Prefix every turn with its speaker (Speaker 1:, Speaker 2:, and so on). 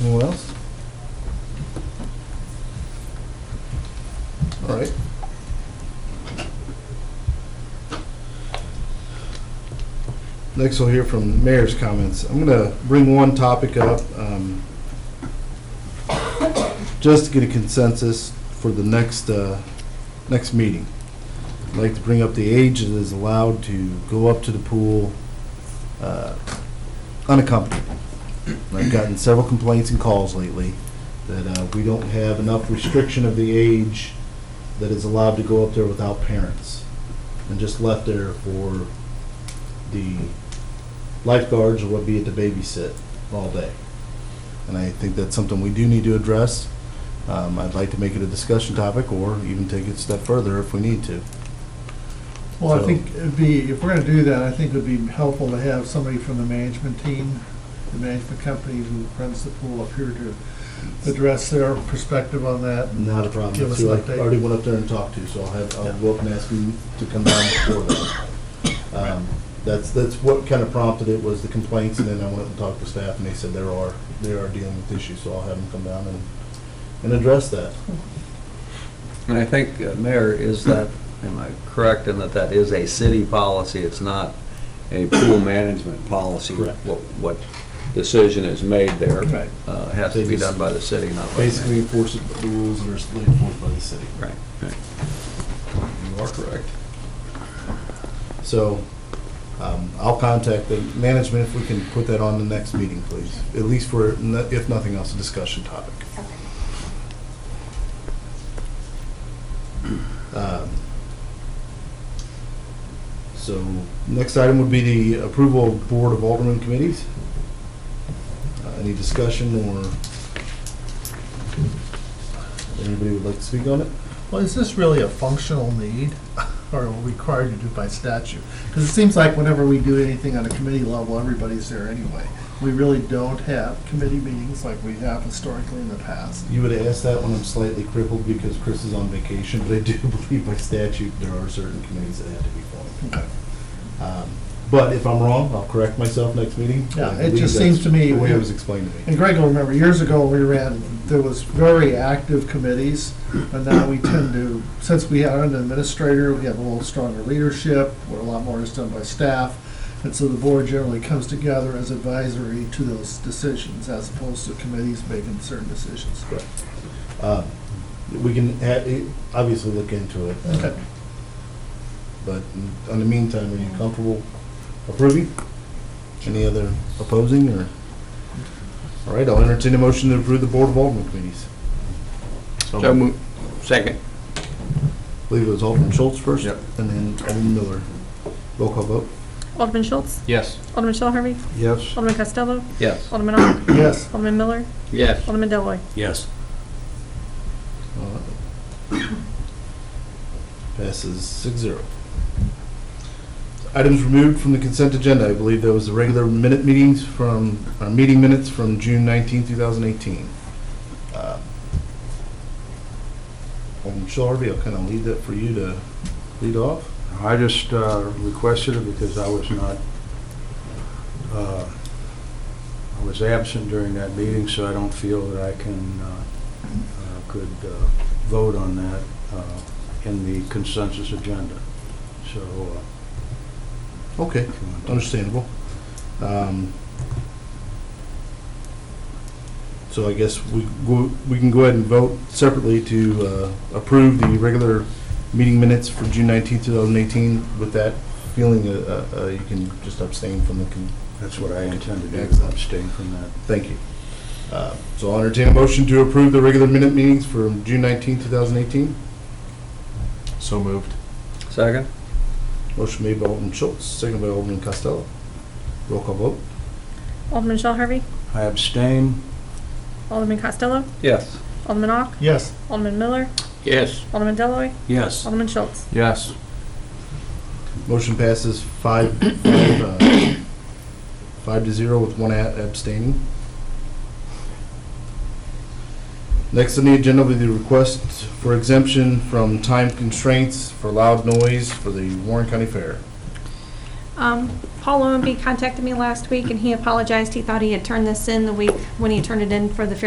Speaker 1: Anyone else? All right. Next, we'll hear from mayor's comments. I'm going to bring one topic up, um, just to get a consensus for the next, uh, next meeting. I'd like to bring up the age that is allowed to go up to the pool uh, unaccompanied. And I've gotten several complaints and calls lately that uh, we don't have enough restriction of the age that is allowed to go up there without parents, and just left there for the lifeguards or what be it to babysit all day. And I think that's something we do need to address. Um, I'd like to make it a discussion topic, or even take it a step further if we need to.
Speaker 2: Well, I
Speaker 1: So-
Speaker 2: think it'd be, if we're gonna do that, I think it'd be helpful to have somebody from the management team, the management company who runs the pool up here to address their perspective on that.
Speaker 1: Not a problem.
Speaker 2: Give us
Speaker 1: So
Speaker 2: an
Speaker 1: I
Speaker 2: update.
Speaker 1: Already went up there and talked to, so I'll have, I'll
Speaker 2: Yeah.
Speaker 1: go up and ask him to come down before that. Um, That's, that's what kind of prompted it was the complaints, and then I went up and talked to staff, and they said there are, they are dealing with issues, so I'll have them come down and, and address that.
Speaker 3: And I think, uh, Mayor, is that, am I correct in that that is a city policy? It's not a pool management policy?
Speaker 1: Correct.
Speaker 3: What, what decision is made there
Speaker 2: Right.
Speaker 3: uh, has to be done by the city, not by the mayor.
Speaker 1: Basically enforce the rules that are enforced by the city.
Speaker 3: Right, right. You are correct.
Speaker 1: So um, I'll contact the management if we can put that on the next meeting, please. At least for, no- if nothing else, a discussion topic. Um, So next item would be the approval of Board of Alderman committees. Uh, Any discussion or anybody would like to speak on it?
Speaker 2: Well, is this really a functional need or required to do by statute? Because it seems like whenever we do anything on a committee level, everybody's there anyway. We really don't have committee meetings like we have historically in the past.
Speaker 1: You would ask that when I'm slightly crippled because Chris is on vacation, but I do believe by statute there are certain committees that have to be formed.
Speaker 2: Okay.
Speaker 1: Um, But if I'm wrong, I'll correct myself next meeting.
Speaker 2: Yeah,
Speaker 1: I
Speaker 2: it
Speaker 1: believe
Speaker 2: just
Speaker 1: that's
Speaker 2: seems to me-
Speaker 1: The way it was explained to
Speaker 2: And
Speaker 1: me.
Speaker 2: Greg will remember, years ago, we ran, there was very active committees, but now we tend to, since we have an administrator, we have a little stronger leadership, where a lot more is done by staff, and so the board generally comes together as advisory to those decisions, as opposed to committees making certain decisions.
Speaker 1: Um, We can ha- it- obviously look into it. uh,
Speaker 2: Okay.
Speaker 1: But in- in the meantime, are you comfortable approving? Any other opposing or? All right, I'll entertain a motion to approve the Board of Alderman committees.
Speaker 3: So moved. Second.
Speaker 1: I believe it was Alderman Schultz first.
Speaker 3: Yep.
Speaker 1: And then Alderman Miller. Roll call vote.
Speaker 4: Alderman Schultz?
Speaker 3: Yes.
Speaker 4: Alderman Shell Harvey?
Speaker 1: Yes.
Speaker 4: Alderman Costello?
Speaker 3: Yes.
Speaker 4: Alderman Ock?
Speaker 2: Yes,
Speaker 4: Alderman Miller?
Speaker 3: Yes.
Speaker 4: Alderman Deloy.
Speaker 3: Yes.
Speaker 1: Uh, Passes six zero. Items removed from the consent agenda, I believe there was the regular minute meetings from, our meeting minutes from June nineteenth, two thousand eighteen. Uh, Alderman Shell Harvey, I'll kind of leave that for you to lead off.
Speaker 5: I just uh, requested it because I was not, uh, I was absent during that meeting, so I don't feel that I can, uh, uh, could uh, vote on that uh, in the consensus agenda. So uh,
Speaker 1: Okay.
Speaker 5: if you want to-
Speaker 1: Understandable. Um, So I guess we, go- we can go ahead and vote separately to uh, approve the regular meeting minutes for June 19, 2018. With that feeling, uh, uh, uh, you can just abstain from the, con-
Speaker 5: that's what I intend to do,
Speaker 1: Excellent.
Speaker 5: abstain from that.
Speaker 1: thank you. Uh, So I'll entertain a motion to approve the regular minute meetings for June 19, 2018.
Speaker 6: So moved.
Speaker 3: Second?
Speaker 1: Motion made by Alderman Schultz, seconded by Alderman Costello. Roll call vote.
Speaker 4: Alderman Shell Harvey?
Speaker 5: I abstain,
Speaker 4: Alderman Costello?
Speaker 3: Yes.
Speaker 4: Alderman Ock?
Speaker 2: yes,
Speaker 4: Alderman Miller?
Speaker 3: Yes.
Speaker 4: Alderman Deloy.
Speaker 5: yes.
Speaker 4: Alderman Schultz?
Speaker 6: Yes.
Speaker 1: Motion passes five, five, uh, five to zero with one a- abstaining. Next on the agenda will be the request for exemption from time constraints for loud noise for the Warren County Fair.
Speaker 4: Um, Paul Owenby contacted me last week, and he apologized. He thought he had turned this in the week when he turned it in for the fair